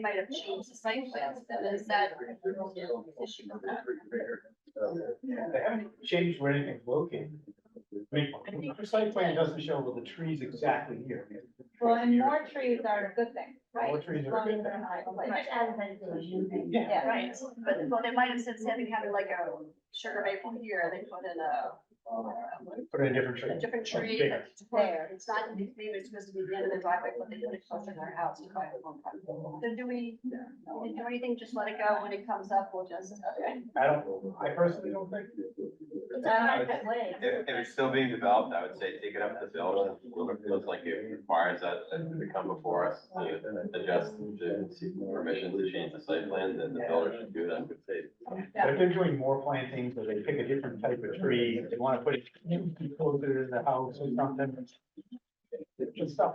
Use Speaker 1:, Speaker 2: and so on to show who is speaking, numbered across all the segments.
Speaker 1: might have changed the site plans, but is that?
Speaker 2: Yeah, they haven't changed where anything's located. I mean, the site plan doesn't show well the trees exactly here.
Speaker 3: Well, and more trees are a good thing, right?
Speaker 2: More trees
Speaker 3: As
Speaker 2: are a
Speaker 3: long
Speaker 2: good
Speaker 3: as they're high,
Speaker 4: It
Speaker 3: like-
Speaker 4: just adds vegetation.
Speaker 2: Yeah.
Speaker 3: Yeah.
Speaker 1: Right, but well, they might have said instead of having like a sugar maple here, they put in a,
Speaker 2: Put in a different tree.
Speaker 1: a different
Speaker 2: Something
Speaker 1: tree.
Speaker 2: bigger.
Speaker 1: that's there. It's not, maybe it's supposed to be the end of the driveway, but they put it closer to their house. So do we, we do anything, just let it go, when it comes up, we'll just, uh, okay.
Speaker 2: I don't, I personally don't think.
Speaker 3: It's a private way.
Speaker 5: If, if it's still being developed, I would say take it up to build, it looks like it requires us to come before us to adjust, to seek permission to change the site plan, then the builder should do that, I would say.
Speaker 2: But if they're doing more plantings, or they pick a different type of tree, they wanna put it closer to the house or something. It's Just stuff.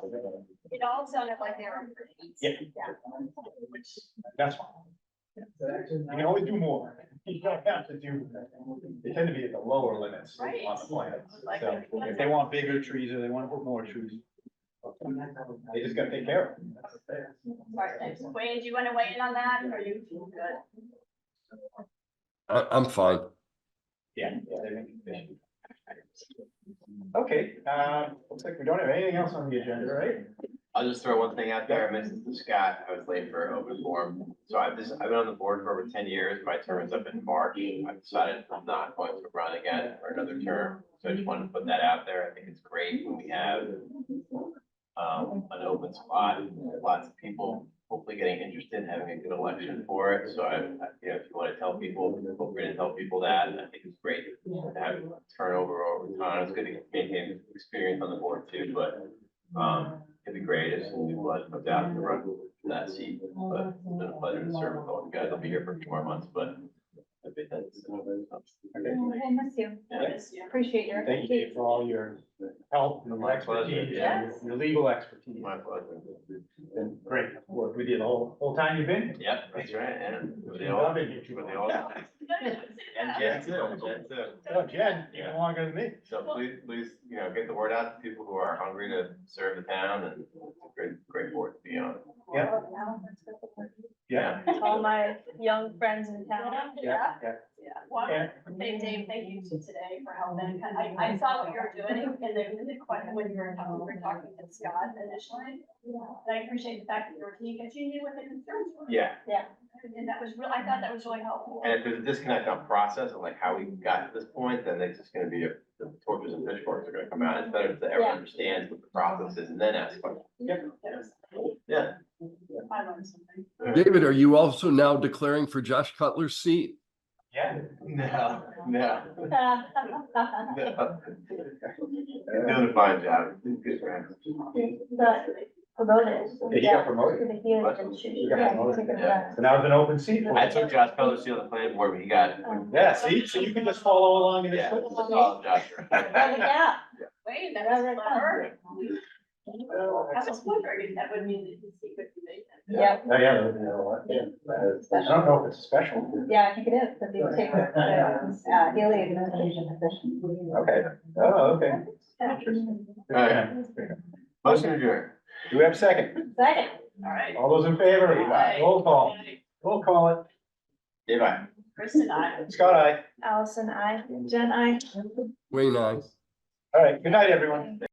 Speaker 1: It all sounded like they were. pretty-
Speaker 2: Yeah. Which, That's fine. You can always do more. You don't have to do, they tend to be at the lower limits on
Speaker 1: Right.
Speaker 2: the plans.
Speaker 1: Like-
Speaker 2: So if they want bigger trees or they wanna put more trees. They just gotta take care of them.
Speaker 1: Right, Wayne, do you want to weigh in on that, or you feel good?
Speaker 6: I, I'm fine.
Speaker 2: Yeah. Okay, um, looks like we don't have anything else on the agenda, right?
Speaker 5: I'll just throw one thing out there. I missed the Scott. I was late for open forum. So I've just, I've been on the board for over ten years. My term is up in March. I've decided I'm not going to run again for another term. So I just wanted to put that out there. I think it's great when we have um, an open spot, lots of people hopefully getting interested, having a good election for it. So I, I- you know, if you want to tell people, feel free to tell people that. I think it's great to have turnover over time. It's good to maintain experience on the board too, but um, It'd be great if we would adapt to run in that seat, but it's been a pleasure to serve with all you guys. I'll be here for two more months, but. I think that's.
Speaker 3: I miss you.
Speaker 5: Yeah.
Speaker 3: Appreciate your.
Speaker 2: Thank you for all your help and
Speaker 5: My pleasure,
Speaker 2: expertise,
Speaker 5: yeah.
Speaker 2: and your legal expertise.
Speaker 5: My pleasure.
Speaker 2: Been great work with you the whole, whole time you've been.
Speaker 5: Yep, that's right, and.
Speaker 2: here.
Speaker 5: were they
Speaker 2: You've
Speaker 5: all-
Speaker 2: loved it, you
Speaker 5: were they
Speaker 2: two.
Speaker 5: all-
Speaker 2: Yeah.
Speaker 5: And Jen too, Jen too.
Speaker 2: Oh, Jen, even longer than me.
Speaker 5: So please, please, you know, get the word out to people who are hungry to serve the town and it's a great, great board to be on.
Speaker 2: Yeah. Yeah,
Speaker 3: All my young friends in town.
Speaker 2: yeah, yeah.
Speaker 1: Yeah, well,
Speaker 2: And-
Speaker 1: Dave, Dave, thank you to today for helping. I, I saw what you were doing and then the question when you were talking, we were talking to Scott initially. And I appreciate the fact that you were, because you knew what the concerns were.
Speaker 5: Yeah,
Speaker 1: And that was real, I thought that was really helpful.
Speaker 5: and if there's a disconnect on process and like how we got to this point, then it's just gonna be, a- the torches and pitchforks are gonna come out. It's better to
Speaker 3: Yeah.
Speaker 5: everyone understands what the process is and then ask questions. Yeah.
Speaker 1: I learned something.
Speaker 6: David, are you also now declaring for Josh Cutler's seat?
Speaker 2: Yeah.
Speaker 5: No, no,
Speaker 3: But
Speaker 5: no. He's doing a fine job. He's good friend.
Speaker 3: promoted.
Speaker 2: He got promoted.
Speaker 3: To the healing and she-
Speaker 2: He got
Speaker 3: yeah,
Speaker 2: promoted,
Speaker 3: she-
Speaker 5: yeah.
Speaker 2: So now it's an open seat. for
Speaker 5: I
Speaker 2: us.
Speaker 5: took Josh Peller's seal on the planning board, but he got,
Speaker 2: Yeah, see, so you can just follow along in this.
Speaker 5: yeah,
Speaker 2: football.
Speaker 5: that's all Josh.
Speaker 3: Rub it out.
Speaker 1: Wait, that was clever. I was wondering if that would mean that his secret could be vacant.
Speaker 3: Yeah,
Speaker 2: Oh, yeah, that'd be a lot, yeah. I don't know if it's special.
Speaker 3: yeah, I think it is, because you take the, uh, healing administration position.
Speaker 2: Okay, oh, okay.
Speaker 5: All right. Motion adjourned.
Speaker 2: Do we have a second?
Speaker 3: Second.
Speaker 1: All right.
Speaker 5: Oh.
Speaker 2: All those in favor?
Speaker 1: Aye.
Speaker 2: Roll call. Roll call it.
Speaker 5: Goodbye.
Speaker 1: Kristen, I.
Speaker 2: Scott, aye.
Speaker 3: Allison, I. Jen, I.
Speaker 6: Wayne, I.
Speaker 2: All right, good night, everyone.